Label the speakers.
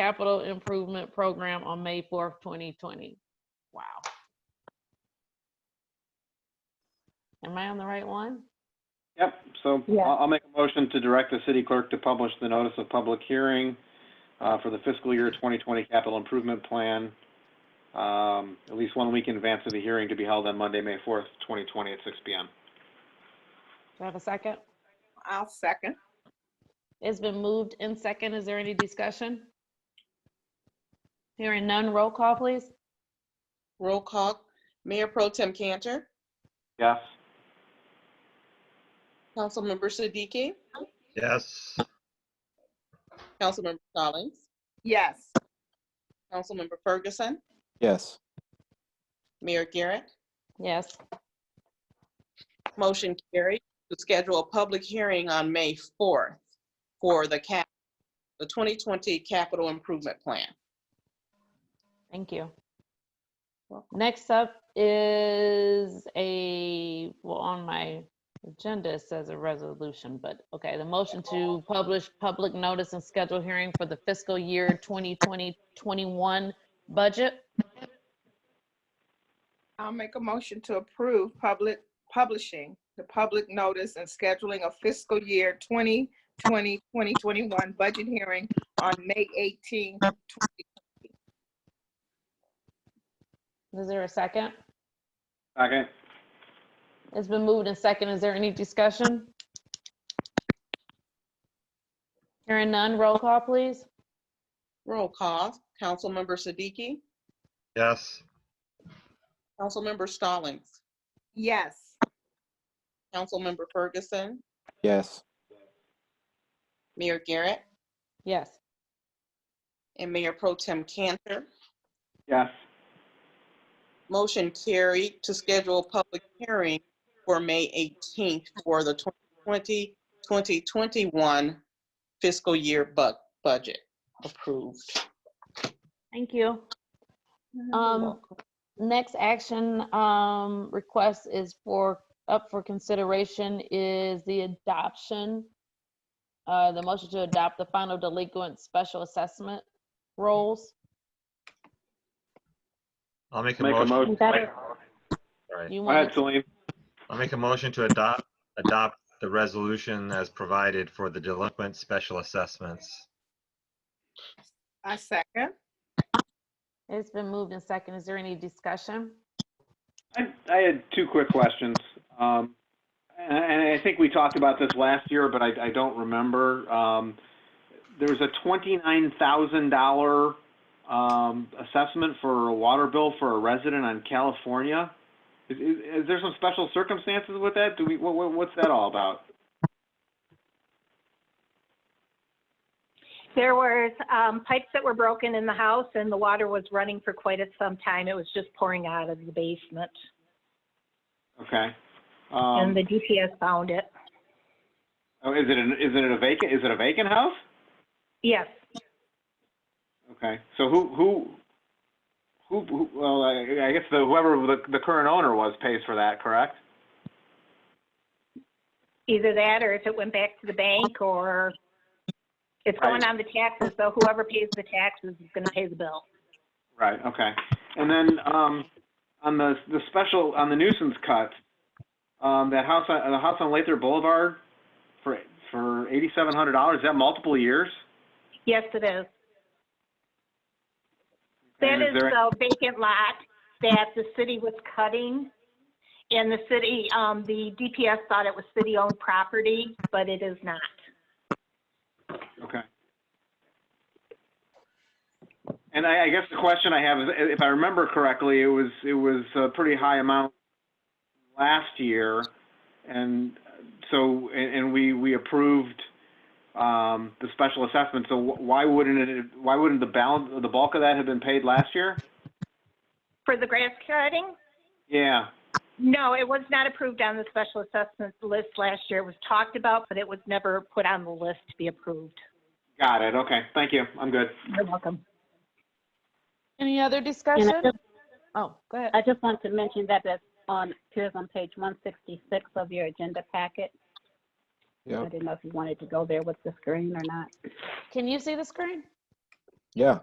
Speaker 1: capital improvement program on May fourth, twenty twenty. Wow. Am I on the right one?
Speaker 2: Yep, so
Speaker 3: Yeah.
Speaker 2: I'll, I'll make a motion to direct the city clerk to publish the notice of public hearing uh, for the fiscal year 2020 capital improvement plan, um, at least one week in advance of the hearing to be held on Monday, May 4th, 2020 at 6 PM.
Speaker 1: Do I have a second?
Speaker 3: I'll second.
Speaker 1: It's been moved in second. Is there any discussion? Hearing none, roll call, please.
Speaker 4: Roll call, Mayor Pro Tem Cantor,
Speaker 2: Yes?
Speaker 4: Councilmember Siddiqui,
Speaker 5: Yes.
Speaker 4: Councilmember Stallings,
Speaker 3: Yes.
Speaker 4: Councilmember Ferguson,
Speaker 6: Yes.
Speaker 4: Mayor Garrett.
Speaker 1: Yes.
Speaker 4: Motion carried to schedule a public hearing on May 4th for the cap, the 2020 capital improvement plan.
Speaker 1: Thank you.
Speaker 4: Welcome.
Speaker 1: Next up is a, well, on my agenda, it says a resolution, but okay, the motion to publish public notice and schedule hearing for the fiscal year 2020-21 budget.
Speaker 3: I'll make a motion to approve public, publishing the public notice and scheduling of fiscal year 2020, 2021 budget hearing on May 18.
Speaker 1: Is there a second?
Speaker 2: Second?
Speaker 1: It's been moved and second. Is there any discussion? Hearing none, roll call, please.
Speaker 4: Roll call, Councilmember Siddiqui,
Speaker 5: Yes.
Speaker 4: Councilmember Stallings,
Speaker 3: Yes.
Speaker 4: Councilmember Ferguson,
Speaker 6: Yes.
Speaker 4: Mayor Garrett,
Speaker 1: Yes.
Speaker 4: and Mayor Pro Tem Cantor.
Speaker 2: Yes.
Speaker 4: Motion carried to schedule a public hearing for May 18th for the 2020, 2021 fiscal year bu- budget approved.
Speaker 1: Thank you. Um, next action, um, request is for, up for consideration is the adoption. Uh, the motion to adopt the final delinquent special assessment rules.
Speaker 5: I'll make a
Speaker 2: Make a motion.
Speaker 5: motion. Sorry.
Speaker 1: You
Speaker 2: Go ahead,
Speaker 1: want, to-
Speaker 2: Celine.
Speaker 5: I'll make a motion to adopt, adopt the resolution as provided for the delinquent special assessments.
Speaker 3: I second.
Speaker 1: it's been moved and second. Is there any discussion?
Speaker 2: I, I had two quick questions. Um, and, and I think we talked about this last year, but I, I don't remember. Um, there was a twenty-nine thousand dollar um, assessment for a water bill for a resident on California. Is, is, is there some special circumstances with that? Do we? What, what, what's that all about?
Speaker 7: There was um, pipes that were broken in the house and the water was running for quite a- some time. It was just pouring out of the basement.
Speaker 2: Okay.
Speaker 7: And
Speaker 2: Um,
Speaker 7: the DPS found it.
Speaker 2: oh, is it an, is it a vacant? Is it a vacant house?
Speaker 7: Yes,
Speaker 2: Okay, so who, who, who, who- well, I I guess the, whoever the, the current owner was pays for that, correct?
Speaker 7: either that or if it went back to the bank or it's going
Speaker 2: Right.
Speaker 7: on the taxes, so whoever pays the taxes is going to pay the bill.
Speaker 2: Right, okay. And then, um, on the, the special, on the nuisance cut, um, that house, on the house on Lather Boulevard for, for eighty-seven hundred dollars, is that multiple years?
Speaker 7: Yes, it is. That
Speaker 2: And
Speaker 7: is
Speaker 2: there-
Speaker 7: the vacant lot that the city was cutting. And the city, um, the DPS thought it was city-owned property, but it is not.
Speaker 2: Okay. And I, I guess the question I have is, i- if I remember correctly, it was, it was a pretty high amount last year. And so, and, and we, we approved, um, the special assessment. So wh- why wouldn't it, why wouldn't the balance, the bulk of that have been paid last year?
Speaker 7: For the grass cutting,
Speaker 2: Yeah,
Speaker 7: No, it was not approved on the special assessment list last year. It was talked about, but it was never put on the list to be approved.
Speaker 2: got it. Okay, thank you. I'm good.
Speaker 7: You're welcome.
Speaker 1: Any other
Speaker 8: And
Speaker 1: discussion?
Speaker 8: I just,
Speaker 1: Oh, go ahead.
Speaker 8: I just want to mention that that's on, appears on page one sixty-six of your agenda packet. I
Speaker 6: Yep.
Speaker 8: didn't know if you wanted to go there with the screen or not.
Speaker 1: Can you see the screen?
Speaker 6: Yeah.